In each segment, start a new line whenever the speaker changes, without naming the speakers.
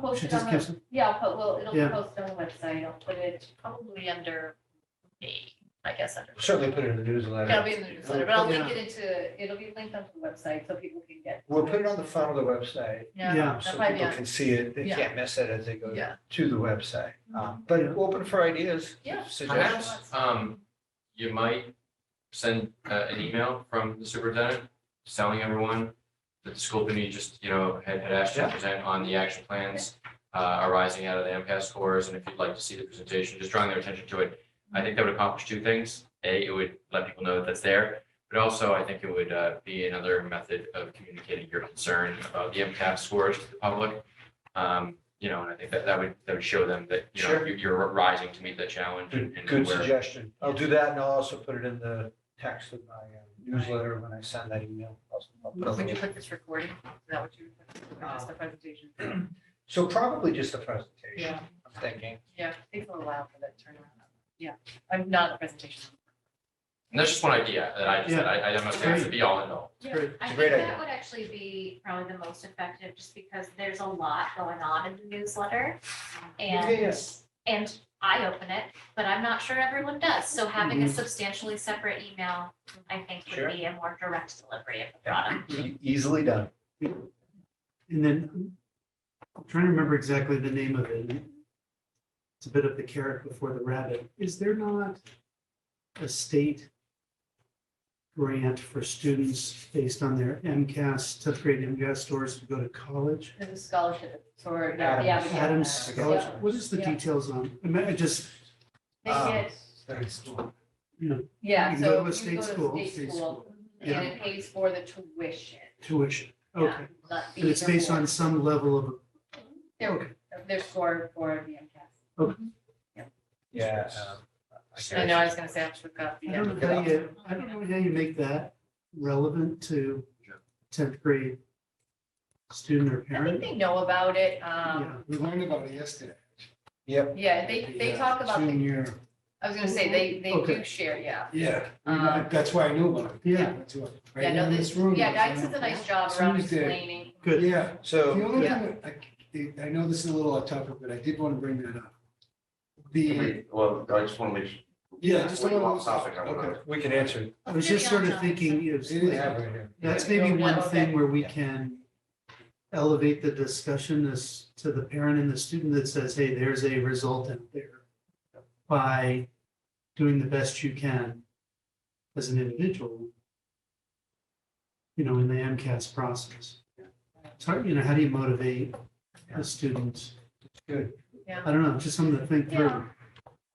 post
She
it on
just
the
keeps,
Yeah, I'll put, well, it'll be
Yeah.
posted on the website. I'll put it probably under me, I guess. under-
Certainly put it in the newsletter.
It'll be in the newsletter, but I'll link
Yeah.
it into, it'll be linked onto the website so people can get.
We'll put it on the front of the website. um,
Yeah.
Yeah, that
So
might be
people
on,
can see it. They
Yeah.
can't miss it as they go
Yeah. Mm-hmm.
to the website. Um, But open for ideas.
Yeah.
Suggestions.
Perhaps, um, you might send, uh, an email from the superintendent telling everyone that the school committee just, you know, had, had asked you to present on the action plans uh, arising out of the MCAS scores, and if you'd like to see the presentation, just drawing their attention to it. I think that would accomplish two things. A, it would let people know that that's there, but also I think it would, uh, be another method of communicating your concern about the MCAS scores to the public. Um, you know, and I think that, that would, that would show them that, you know,
Sure.
you- you're rising to meet the challenge. and-
Good,
and
good
where-
suggestion. I'll do that and I'll also put it in the text of my uh, newsletter when I send that email. I'll- I'll put a
when you
link.
put this recording, is that what you, that's the presentation?
So probably just a presentation,
Yeah,
I'm thinking.
yeah, it takes a little while for that to turn around. Yeah, I'm not a presentation.
And that's just one idea that I just, said. I, I don't know if that's the be all and all.
it's great.
I
It's a
think
great
that
idea.
would actually be probably the most effective, just because there's a lot going on in the newsletter. And,
Yes.
and I open it, but I'm not sure everyone does, so having a substantially separate email, I think
Mm-hmm. Sure.
would be a more direct delivery of the
Yeah.
product.
E- Easily done.
And then I'm trying to remember exactly the name of it. It's a bit of the carrot before the rabbit. Is there not a state grant for students based on their MCAS, tenth grade MCAS scores to go to college?
There's a scholarship for, yeah, yeah. we get
Adams
that.
Scholarship,
Yeah.
what is the
Yeah.
details on? I mean, I just,
They
Um,
get,
That's cool.
you know,
yeah,
you go
so
to a
if you
state
go
school.
to state school and
Yeah.
it pays for the tuition.
Tuition,
yeah,
okay.
not
And it's
fees or
based on
board.
some level of,
Their,
okay,
their score for the MCAS.
Yeah. um,
I
guess.
know, I was gonna say, I should have got the.
I don't know how you, I don't know how you make that relevant to tenth grade student or
I think
parent.
they know about it,
Yeah,
um,
We learned about it yesterday.
Yep.
yeah, they, they talk about, the-
Junior,
I was gonna say, they, they do
Okay.
share, yeah.
yeah,
Um,
that's why I knew about it.
Yeah.
That's why. Right
Yeah,
here
no,
in
this,
this room,
yeah,
that's
Guy does a
why.
nice job around
Tuesday.
explaining.
good.
Yeah, the
So,
only
Yeah.
thing, that I, I know this is a little off topic, but I did want to bring that up. The,
Wait, Well, I just want to make sure.
yeah, just a
Way off
little,
topic, I want
okay,
to.
we can answer. it.
I was just sort of thinking, you
It is
know,
have it here.
that's maybe one
Okay.
thing where we can elevate the discussion as to the parent and the student that says, hey, there's a result out there by doing the best you can as an individual, you know, in the MCAS process. It's hard, you know, how do you motivate a student?
Good.
Yeah.
I don't know, just something to think through.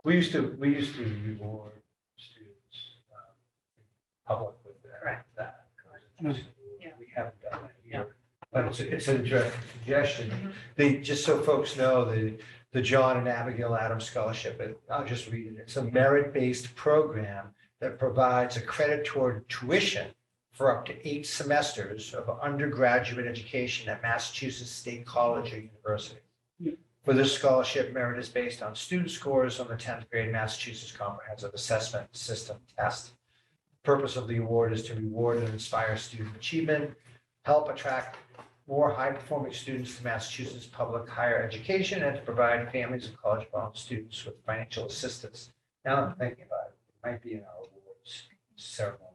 We used to, we used to reward students um, in public with that.
Correct.
that kind of thing.
Yeah.
We haven't done that
Yeah.
here. But it's, it's an interesting
Mhm.
suggestion. They, just so folks know, the, the John and Abigail Adams Scholarship, and I'll just read it. It's a merit-based program that provides a credit toward tuition for up to eight semesters of undergraduate education at Massachusetts State College or University. For this scholarship, merit is based on student scores on the 10th grade Massachusetts Comprehensive Assessment System test. Purpose of the award is to reward and inspire student achievement, help attract more high-performing students to Massachusetts public higher education, and to provide families of college-bound students with financial assistance. Now I'm thinking about it, it might be in our awards ceremony.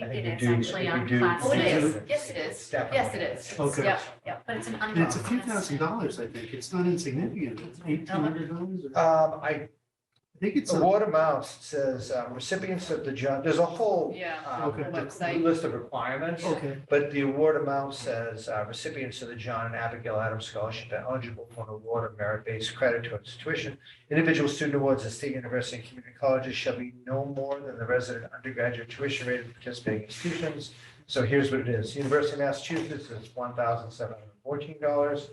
I think
we
it is
do- I
actually
think we
on
do-
class.
Oh, it
notes,
is. Yes, it is.
It's definitely-
Yes, it is.
Okay.
Yeah, yeah.
But it's an
And it's a few
unknown
thousand dollars, I think. It's not insignificant. It's eighteen hundred dollars. I
Um, I,
think it's. a-
award amounts says uh, recipients of the John, there's a whole
Yeah.
um,
Okay.
Website.
List of requirements.
Okay,
But the award amount says uh, recipients of the John and Abigail Adams Scholarship are eligible for an award of merit-based credit towards tuition. Individual student awards at state university and community colleges shall be no more than the resident undergraduate tuition rate of participating institutions. So here's what it is. University of Massachusetts is one thousand seven hundred fourteen dollars.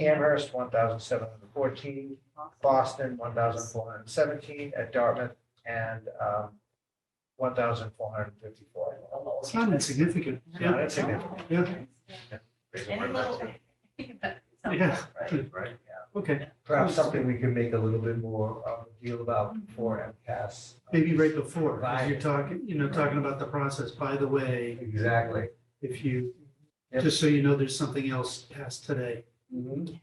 Amherst, one thousand seven hundred fourteen, Boston, one thousand four hundred seventeen, at Dartmouth, and um, one thousand four hundred fifty-four.
it's not insignificant.
Yeah, that's significant.
Yeah,
And a little.
yeah,
Right, right, yeah.
okay.
Perhaps something we can make a little bit more of a deal about for MCAS.
Maybe right before, 'cause you're talking, you know, talking about the process. By the way,
Exactly.
if you,
Yep.
just so you know, there's something else past today.
Mhm.